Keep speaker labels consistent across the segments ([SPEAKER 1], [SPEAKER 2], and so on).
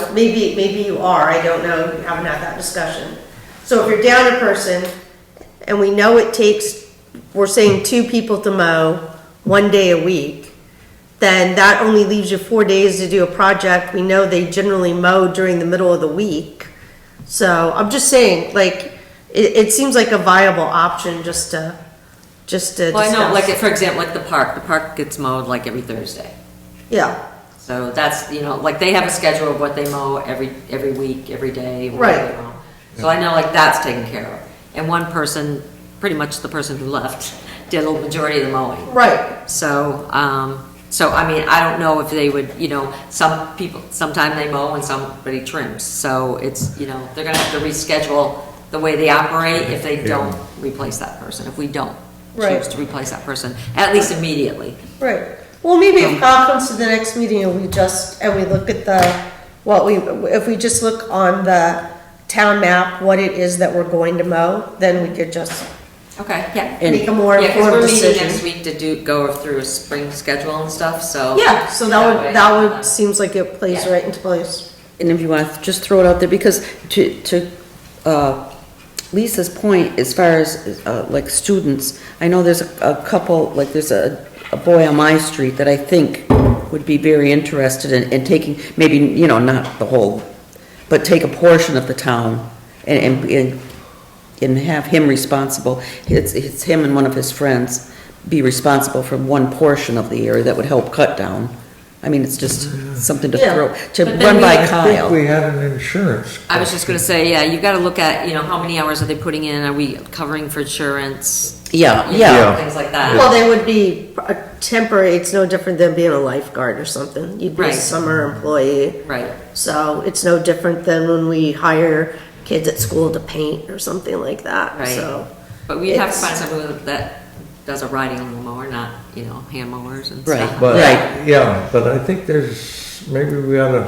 [SPEAKER 1] knows? Maybe, maybe you are, I don't know, you haven't had that discussion. So if you're down a person, and we know it takes, we're saying two people to mow, one day a week, then that only leaves you four days to do a project, we know they generally mow during the middle of the week. So I'm just saying, like, it, it seems like a viable option just to, just to
[SPEAKER 2] Well, I
[SPEAKER 1] discuss.
[SPEAKER 2] know, like, for example, like the park, the park gets mowed like every Thursday.
[SPEAKER 1] Yeah.
[SPEAKER 2] So that's, you know, like they have a schedule of what they mow every, every week, every day. what
[SPEAKER 1] Right.
[SPEAKER 2] they mow. So I know like that's taken care of. And one person, pretty much the person who left, did a majority of the mowing.
[SPEAKER 1] Right.
[SPEAKER 2] So, um, so I mean, I don't know if they would, you know, some people, sometime they mow and somebody trims. So it's, you know, they're gonna have to reschedule the way they operate if they don't replace that person, if we don't
[SPEAKER 1] Right.
[SPEAKER 2] choose to replace that person, at least immediately.
[SPEAKER 1] Right. Well, maybe if
[SPEAKER 2] Um,
[SPEAKER 1] Kyle comes to the next meeting and we just, and we look at the, what we, if we just look on the town map, what it is that we're going to mow, then we could just
[SPEAKER 2] Okay, yeah.
[SPEAKER 1] make a more
[SPEAKER 2] Yeah, 'cause
[SPEAKER 1] informed
[SPEAKER 2] we're meeting next
[SPEAKER 1] decision.
[SPEAKER 2] week to do, go through a spring schedule and stuff, Oh, so.
[SPEAKER 1] Yeah, so that
[SPEAKER 2] way,
[SPEAKER 1] would, that
[SPEAKER 2] uh,
[SPEAKER 1] would, seems like it plays
[SPEAKER 2] Yeah.
[SPEAKER 1] right into place.
[SPEAKER 3] And if you want to just throw it out there, because to, to uh, Lisa's point, as far as uh, like students, I know there's a a couple, like there's a, a boy on my street that I think would be very interested in, in taking, maybe, you know, not the whole, but take a portion of the town and, and- and, and have him responsible. It's, it's him and one of his friends be responsible for one portion of the area that would help cut down. I mean, it's just something to
[SPEAKER 1] Yeah.
[SPEAKER 3] throw, to
[SPEAKER 2] But then
[SPEAKER 3] run
[SPEAKER 2] we-
[SPEAKER 3] by
[SPEAKER 2] I
[SPEAKER 3] Kyle.
[SPEAKER 4] I think we had an insurance.
[SPEAKER 2] I was just gonna say, yeah, you gotta look at, you know, how many hours are they putting in, are we covering for insurance?
[SPEAKER 3] Yeah,
[SPEAKER 2] You
[SPEAKER 3] yeah.
[SPEAKER 2] know, Things like that.
[SPEAKER 1] Well, they would be a temporary, it's no different than being a lifeguard or something. You'd be a
[SPEAKER 2] Right.
[SPEAKER 1] summer employee.
[SPEAKER 2] Right,
[SPEAKER 1] So it's no different than when we hire kids at school to paint or something like that,
[SPEAKER 2] Right.
[SPEAKER 1] so.
[SPEAKER 2] but we have to
[SPEAKER 1] It's-
[SPEAKER 2] find someone that does a riding mower, not, you know, hand mowers and
[SPEAKER 3] Right.
[SPEAKER 2] stuff.
[SPEAKER 4] But,
[SPEAKER 3] Right.
[SPEAKER 4] yeah, but I think there's, maybe we ought to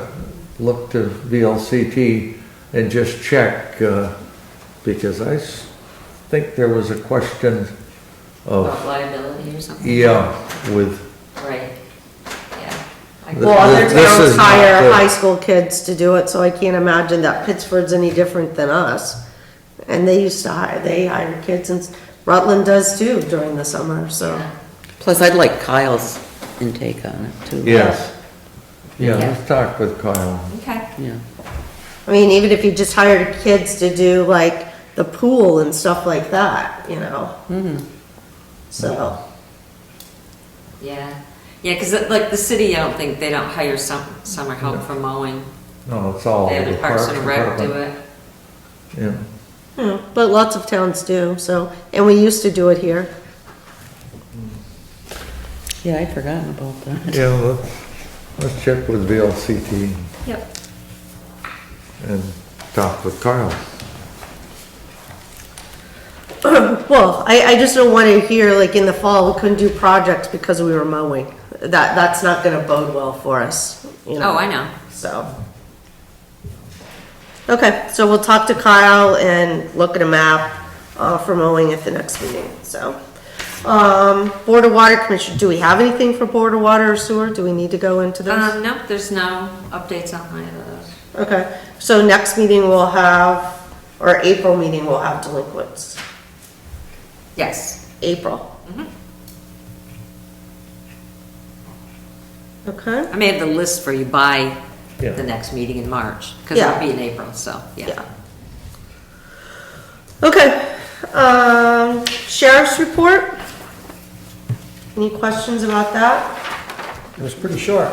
[SPEAKER 4] look to VLCT and just check, uh, because I s- think there was a question of,
[SPEAKER 2] About Liability or something.
[SPEAKER 4] yeah, with,
[SPEAKER 2] Right, yeah. I-
[SPEAKER 4] The-
[SPEAKER 1] Well, other
[SPEAKER 4] This
[SPEAKER 1] towns
[SPEAKER 4] is not
[SPEAKER 1] hire
[SPEAKER 4] good.
[SPEAKER 1] high school kids to do it, so I can't imagine that Pittsford's any different than us. And they used to hire, they hire kids and Rutland does too during the summer, so.
[SPEAKER 3] Plus, I'd like Kyle's intake on it too.
[SPEAKER 4] yes. Yeah,
[SPEAKER 2] Yeah.
[SPEAKER 4] let's talk with Kyle.
[SPEAKER 2] Okay,
[SPEAKER 3] Yeah.
[SPEAKER 1] I mean, even if you just hired kids to do like the pool and stuff like that, you know?
[SPEAKER 4] Mm-hmm.
[SPEAKER 1] So,
[SPEAKER 2] yeah, yeah, cause it- like the city, I don't think, they don't hire some, summer help for mowing,
[SPEAKER 4] No, it's all
[SPEAKER 2] they have
[SPEAKER 4] the
[SPEAKER 2] the Parks and Rec do
[SPEAKER 4] Department.
[SPEAKER 2] it.
[SPEAKER 4] Yeah.
[SPEAKER 1] hmm, but lots of towns do, so, and we used to do it here.
[SPEAKER 3] Yeah, I'd forgotten about that.
[SPEAKER 4] Yeah, let's, let's check with VLCT
[SPEAKER 2] Yep.
[SPEAKER 4] and talk with Kyle.
[SPEAKER 1] Well, I, I just don't want to hear, like, in the fall, we couldn't do projects because we were mowing. That, that's not gonna bode well for us, you know?
[SPEAKER 2] Oh, I know.
[SPEAKER 1] So. Okay, so we'll talk to Kyle and look at a map, uh, for mowing at the next meeting, so. Um, Board of Water Commission, do we have anything for Board of Water or Sewer? Do we need to go into this?
[SPEAKER 2] Um, nope, there's no updates on my, uh,
[SPEAKER 1] Okay, so next meeting we'll have, or April meeting, we'll have delinquents.
[SPEAKER 2] yes.
[SPEAKER 1] April. Okay,
[SPEAKER 2] I may have the list for you by
[SPEAKER 4] Yeah.
[SPEAKER 2] the next meeting in March, because it'll
[SPEAKER 1] Yeah.
[SPEAKER 2] be in April, so, yeah.
[SPEAKER 1] yeah. Okay, um, sheriff's report? Any questions about that?
[SPEAKER 5] It was pretty short.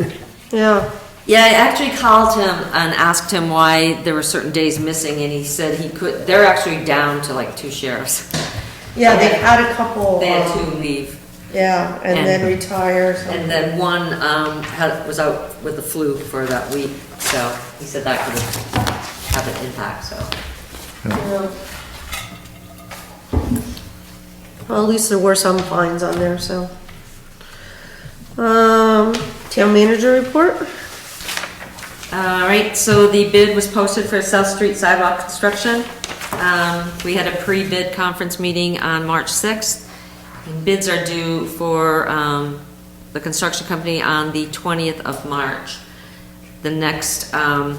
[SPEAKER 1] Yeah,
[SPEAKER 2] Yeah, I actually called him and asked him why there were certain days missing, and he said he could, they're actually down to like two sheriffs.
[SPEAKER 1] yeah, they had a couple,
[SPEAKER 2] They had
[SPEAKER 1] um,
[SPEAKER 2] two leave,
[SPEAKER 1] yeah, and then
[SPEAKER 2] And-
[SPEAKER 1] retire,
[SPEAKER 2] and
[SPEAKER 1] so,
[SPEAKER 2] then one, um, had, was out with the flu for that week, so he said that could have an impact, so.
[SPEAKER 1] yeah. Well, at least there were some fines on there, so. Um, town manager report?
[SPEAKER 2] All right, so the bid was posted for South Street sidewalk construction. Um, We had a pre-bid conference meeting on March 6th. And Bids are due for um, the construction company on the 20th of March. the next, um,